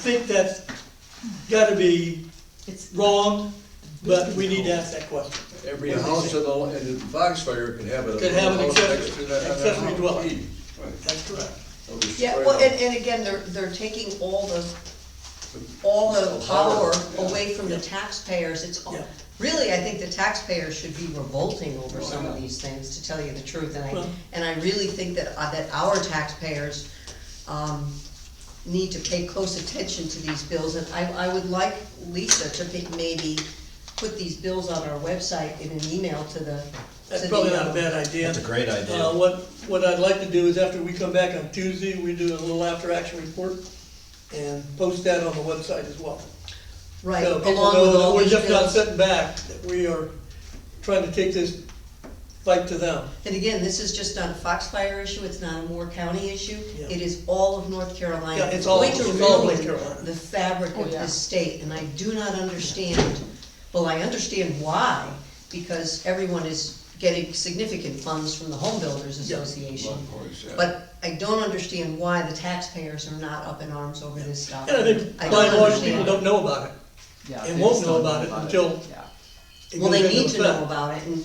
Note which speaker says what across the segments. Speaker 1: think that's gotta be
Speaker 2: It's
Speaker 1: wrong, but we need to ask that question.
Speaker 3: Every house in the, in the Foxfire could have a.
Speaker 1: Could have an
Speaker 3: house
Speaker 1: accessory-
Speaker 3: next to that- and a
Speaker 1: accessory
Speaker 3: house.
Speaker 1: dwelling. That's correct.
Speaker 3: That was
Speaker 2: Yeah,
Speaker 3: spread
Speaker 2: well,
Speaker 3: out.
Speaker 2: and, and again, they're, they're taking all the, all the
Speaker 3: The power,
Speaker 2: power
Speaker 3: yeah.
Speaker 2: away from the taxpayers, it's, all-
Speaker 1: Yeah.
Speaker 2: really, I think the taxpayers should be revolting over
Speaker 3: Oh,
Speaker 2: some of
Speaker 3: yeah.
Speaker 2: these things, to tell you the truth, and I,
Speaker 1: Well-
Speaker 2: and I really think that, uh, that our taxpayers, um, need to pay close attention to these bills, and I, I would like Lisa to pick, maybe put these bills on our website in an email to the. to
Speaker 1: That's
Speaker 2: the,
Speaker 1: probably not a
Speaker 2: um,
Speaker 1: bad idea.
Speaker 4: That's a great idea.
Speaker 1: Uh, what, what I'd like to do is after we come back on Tuesday, we do a little after-action report and post that on the website as well.
Speaker 2: Right,
Speaker 1: So people
Speaker 2: along
Speaker 1: know
Speaker 2: with
Speaker 1: that
Speaker 2: all these
Speaker 1: We're just not
Speaker 2: bills.
Speaker 1: sitting back, that we are trying to take this fight to them.
Speaker 2: And again, this is just not a Foxfire issue, it's not a Moore County issue,
Speaker 1: Yeah.
Speaker 2: it is all of North Carolina.
Speaker 1: Yeah, it's all-
Speaker 2: Going to
Speaker 1: it's all of North
Speaker 2: ruin
Speaker 1: Carolina.
Speaker 2: The fabric of this state, and I do not understand, well, I understand why, because everyone is getting significant funds from the Home Builders
Speaker 1: Yeah.
Speaker 2: Association.
Speaker 3: Of course, yeah.
Speaker 2: But I don't understand why the taxpayers are not up in arms over this stuff.
Speaker 1: And I think
Speaker 2: I
Speaker 1: by and
Speaker 2: don't
Speaker 1: large, people
Speaker 2: understand.
Speaker 1: don't know about it.
Speaker 5: Yeah,
Speaker 1: And
Speaker 5: they
Speaker 1: won't
Speaker 5: just
Speaker 1: know
Speaker 5: don't
Speaker 1: about it until-
Speaker 5: Yeah.
Speaker 1: It
Speaker 2: Well, they
Speaker 1: goes into
Speaker 2: need to
Speaker 1: effect.
Speaker 2: know about it, and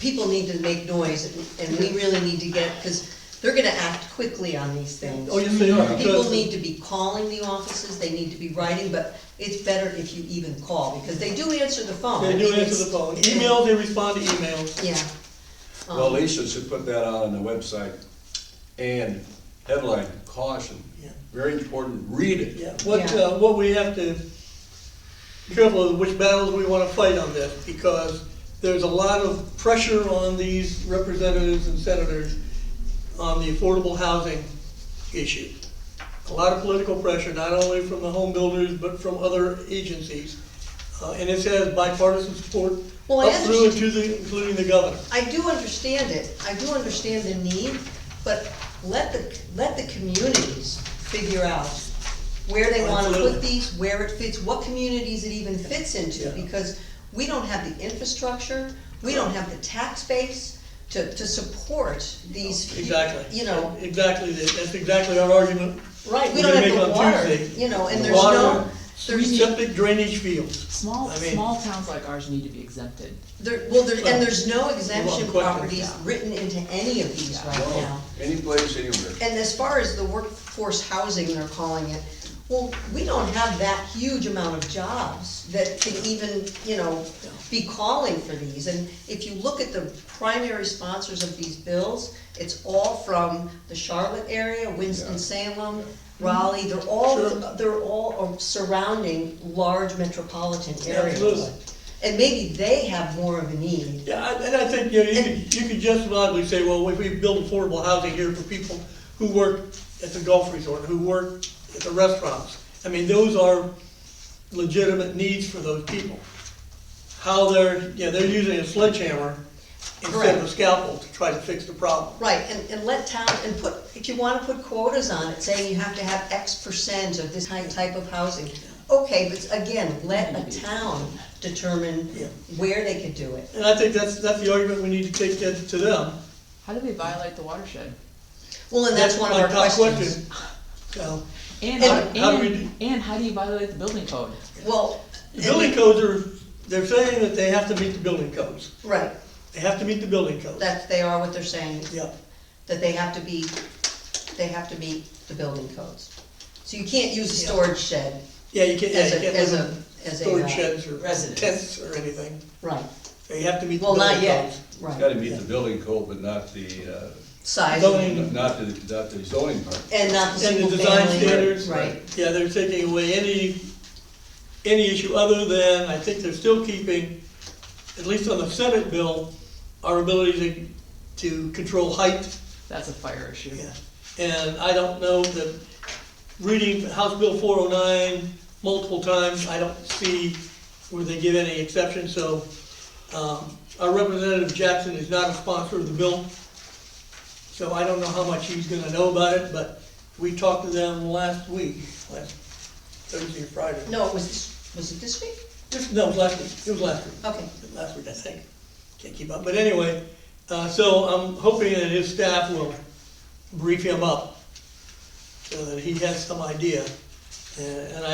Speaker 2: people need to make noise, and- and we really need to get, because they're gonna act quickly on these things.
Speaker 1: Oh, yes, they are.
Speaker 2: People
Speaker 1: because-
Speaker 2: need to be calling the offices, they need to be writing, but it's better if you even call, because they do answer the phone.
Speaker 1: They
Speaker 2: I
Speaker 1: do
Speaker 2: mean,
Speaker 1: answer the
Speaker 2: it's-
Speaker 1: phone. Email, they respond to emails.
Speaker 2: Yeah. Um,
Speaker 3: Well, Lisa should put that out on the website, and headline, caution,
Speaker 1: Yeah.
Speaker 3: very important, read it.
Speaker 1: Yeah, what,
Speaker 2: Yeah.
Speaker 1: uh, what we have to careful of which battles we wanna fight on this, because there's a lot of pressure on these representatives and senators on the affordable housing issue. A lot of political pressure, not only from the home builders, but from other agencies. Uh, and it has bipartisan support
Speaker 2: Well, I
Speaker 1: up through and
Speaker 2: understand-
Speaker 1: to the, including the governor.
Speaker 2: I do understand it, I do understand the need, but let the, let the communities figure out where they wanna put
Speaker 1: Absolutely.
Speaker 2: these, where it fits, what communities it even fits into,
Speaker 1: Yeah.
Speaker 2: because we don't have the infrastructure, we don't have the tax base to, to support these. hu-
Speaker 1: Exactly.
Speaker 2: You know,
Speaker 1: Exactly, that- that's exactly our argument.
Speaker 2: right,
Speaker 1: we're
Speaker 2: we
Speaker 1: gonna
Speaker 2: don't have
Speaker 1: make
Speaker 2: the
Speaker 1: on
Speaker 2: water,
Speaker 1: Tuesday.
Speaker 2: you know, and
Speaker 1: The
Speaker 2: there's no,
Speaker 1: water,
Speaker 2: there's.
Speaker 1: Septic drainage fields.
Speaker 5: Small,
Speaker 1: I mean-
Speaker 5: small towns like ours need to be exempted.
Speaker 2: There, well, there,
Speaker 1: Well,
Speaker 2: and there's no exemption
Speaker 1: question.
Speaker 2: properties written into any of these right
Speaker 3: Well,
Speaker 2: now.
Speaker 3: Any place, anywhere.
Speaker 2: And as far as the workforce housing, they're calling it, well, we don't have that huge amount of jobs that can even, you know, be calling for these. And if you look at the primary sponsors of these bills, it's all from the Charlotte area, Winston-Salem, Raleigh, they're all,
Speaker 1: Sure.
Speaker 2: they're all um, surrounding large metropolitan
Speaker 1: Absolutely.
Speaker 2: areas. And maybe they have more of a need.
Speaker 1: Yeah, I- and I think, you know, you could, you could justifiably say, well, if we build affordable housing here for people who work at the golf resort, who work at the restaurants. I mean, those are legitimate needs for those people. How they're, you know, they're using a sledgehammer instead of a
Speaker 2: Correct.
Speaker 1: scalpel to try to fix the problem.
Speaker 2: Right, and, and let town, and put, if you wanna put quotas on it, saying you have to have X percent of this type, type of housing. Okay, but again, let a town determine
Speaker 1: Yeah.
Speaker 2: where they could do it.
Speaker 1: And I think that's, that's the argument we need to take to to them.
Speaker 5: How do they violate the watershed?
Speaker 2: Well, and that's one of
Speaker 1: my
Speaker 2: our
Speaker 1: top
Speaker 2: questions.
Speaker 1: question. So, And
Speaker 5: And,
Speaker 1: how do we
Speaker 5: and,
Speaker 1: do-
Speaker 5: and how do you violate the building code?
Speaker 2: Well,
Speaker 1: the building codes are, they're saying that they have to meet the building codes.
Speaker 2: right,
Speaker 1: They have to meet the building codes.
Speaker 2: that, they are what they're saying,
Speaker 1: Yeah.
Speaker 2: that they have to be, they have to meet the building codes. So you can't use a
Speaker 1: Yeah.
Speaker 2: storage shed
Speaker 1: Yeah, you can't, yeah,
Speaker 2: as
Speaker 1: you
Speaker 2: a,
Speaker 1: can't
Speaker 2: as
Speaker 1: live
Speaker 2: a,
Speaker 1: in
Speaker 2: as a,
Speaker 1: storage
Speaker 2: uh,
Speaker 1: sheds or
Speaker 5: residence.
Speaker 1: tents or anything.
Speaker 2: right,
Speaker 1: They have to meet the
Speaker 2: well, not
Speaker 1: building
Speaker 2: yet,
Speaker 1: codes.
Speaker 2: right,
Speaker 3: Gotta meet the building code, but not the, uh,
Speaker 2: size,
Speaker 1: Zoning.
Speaker 2: and
Speaker 3: not the, not the zoning part.
Speaker 2: not the
Speaker 1: And
Speaker 2: single
Speaker 1: the design
Speaker 2: family,
Speaker 1: standards.
Speaker 2: right.
Speaker 1: Yeah, they're taking away any, any issue other than, I think they're still keeping, at least on the Senate bill, our ability to, to control height.
Speaker 5: That's a fire issue.
Speaker 1: Yeah. And I don't know that, reading House Bill four oh nine multiple times, I don't see where they give any exception, so, um, our Representative Jackson is not a sponsor of the bill. So I don't know how much he's gonna know about it, but we talked to them last week, last Thursday or Friday.
Speaker 2: No, it was, this- was it this week?
Speaker 1: Just- No, it was last week, it was last week
Speaker 2: Okay,
Speaker 1: last week, I think. Can't keep up, but anyway, uh, so I'm hoping that his staff will brief him up so that he has some idea And and